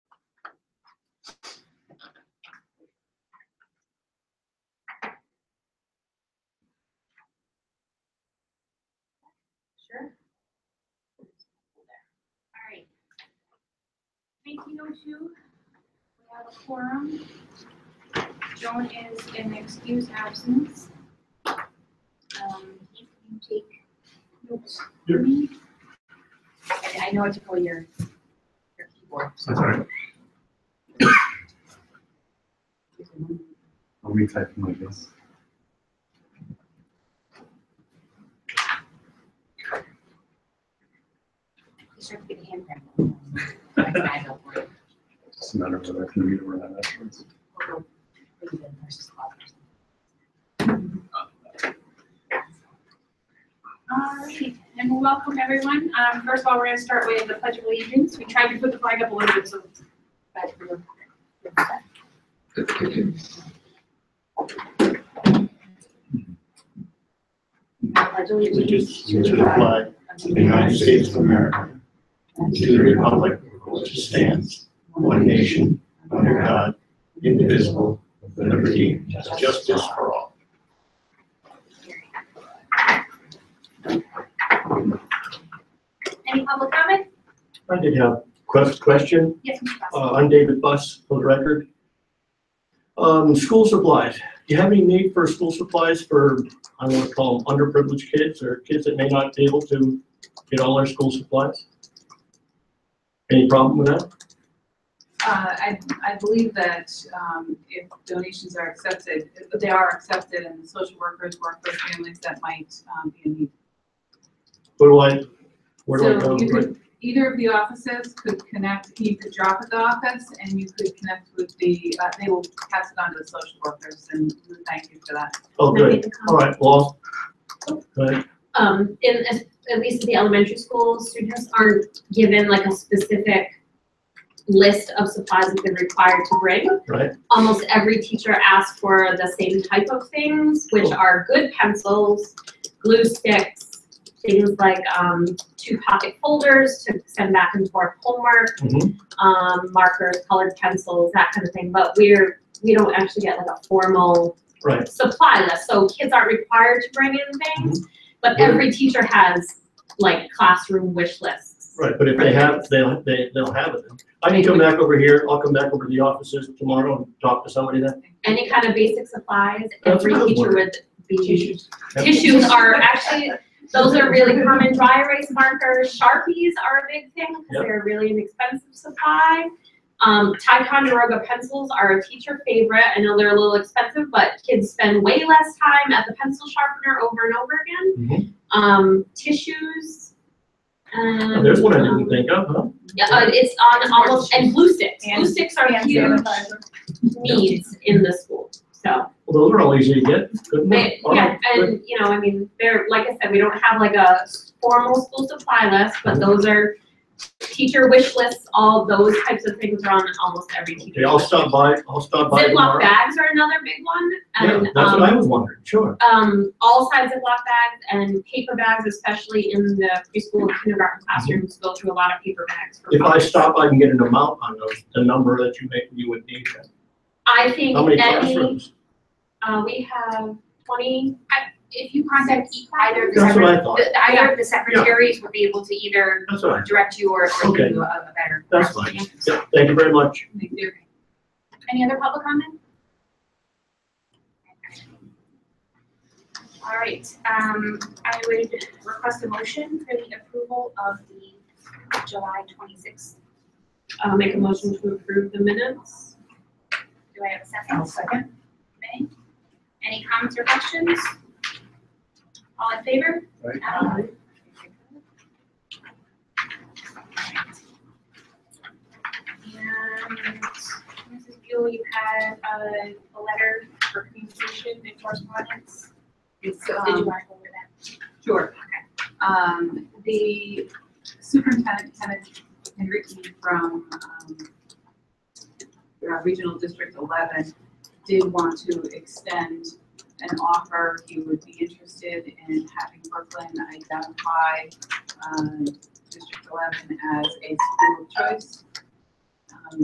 1802. We have a quorum. Joan is an excused absence. Um, Heath, can you take notes for me? I I know what to call your, your keyboard. That's all right. I'll be typing like this. You start to get a hand cramp. That's an eye for you. It's just a matter of whether I can read it or not afterwards. Or go put it in versus closet or something. All right, uh, and welcome everyone. Um, first of all, we're gonna start with the pledge of allegiance. We tried to put the flag up a little bit, so. but we're- I pledge allegiance allegiance to the flag of of the United States of America and to the republic for which it stands, one nation, under God, indivisible, with liberty and justice for all. Any public comment? I did have a quest- question. Yes, Mr. Bass. Uh, I'm David Buss, for the record. Um, School supplies. Do you have any need for school supplies for, I want to call them underprivileged kids or kids that may not be able to get all their school supplies? Any problem with that? Uh, I, I believe that, um, if donations are accepted, if they are accepted and the social workers work with families that might, um, be in need. What do I, where do I So go? you could, either of the offices could connect, you could drop at the office and you could connect with the, uh, they will pass it on to the social workers and we thank you for that. Oh, Can I good. make a comment? All right, well, but Um, in, at- at least at the elementary school, students aren't given like a specific list of supplies that they're required to bring. Right. Almost every teacher asks for the same type of things, which Cool. are good pencils, glue sticks, things like, um, two pocket folders to send back and forth homework, Mhm. um, markers, colored pencils, that kind of thing, but we're, we don't actually get like a formal right, supply list, so kids aren't required to bring in things, Mm-hmm. but Yeah. every teacher has like classroom wish lists. right, but if they have, they'll, they, they'll have it. I can come back over here, I'll come back over to the offices tomorrow and talk to somebody then. Any kind of basic supplies, That's every another teacher word. would be. Tissues. Yep. Tissues are actually, those are really common, dry erase markers, Sharpies are a big thing, Yep. because they're really an expensive supply. Um, Ticonderoga pencils are a teacher favorite, I know they're a little expensive, but kids spend way less time at the pencil sharpener over and over again. Mm-hmm. um, tissues. Oh, And, There's one I didn't um, think of, huh? Yeah, uh, it's on almost, and glue sticks, And- glue sticks are And huge sanitizer. needs in the school, so. Well, those are all easy to get, good one. They, All yeah, right, good. and, you know, I mean, they're, like I said, we don't have like a formal school supply list, but those are teacher wish lists, all those types of things are on almost every Okay, teacher. I'll stop by, I'll stop by Ziploc tomorrow. bags are another big one, Yeah, and, um. that's what I was wondering, sure. um, all sides of block bags and paper bags, especially in the preschool and kindergarten classrooms, go through a lot of paper bags. for If I books. stop, I can get an amount on those, the number that you make, you would need. then. I think How many any, classrooms? uh, we have twenty, If you contact e- either of the That's what secret, I thought, the- either of the secretaries will be able to either that's all right, direct you or or Okay. give you a a better. that's fine. Yep, thank you very much. Like, they're- Any other public comment? All right, um, I would request a motion for the approval of the July twenty-sixth. uh, make a motion to approve the minutes. Do I have a 2nd second. May? Any comments or questions? All in favor? Aye. Aye. And Mrs. Buell, you had a, a letter for communication and correspondence. It's, Did um, you want to go over that? Sure. Um, the superintendent, Kenneth Henrique from, um, uh, Regional District Eleven did want to extend an offer. He would be interested in having Brooklyn uh, identify, um, District Eleven as a school of choice.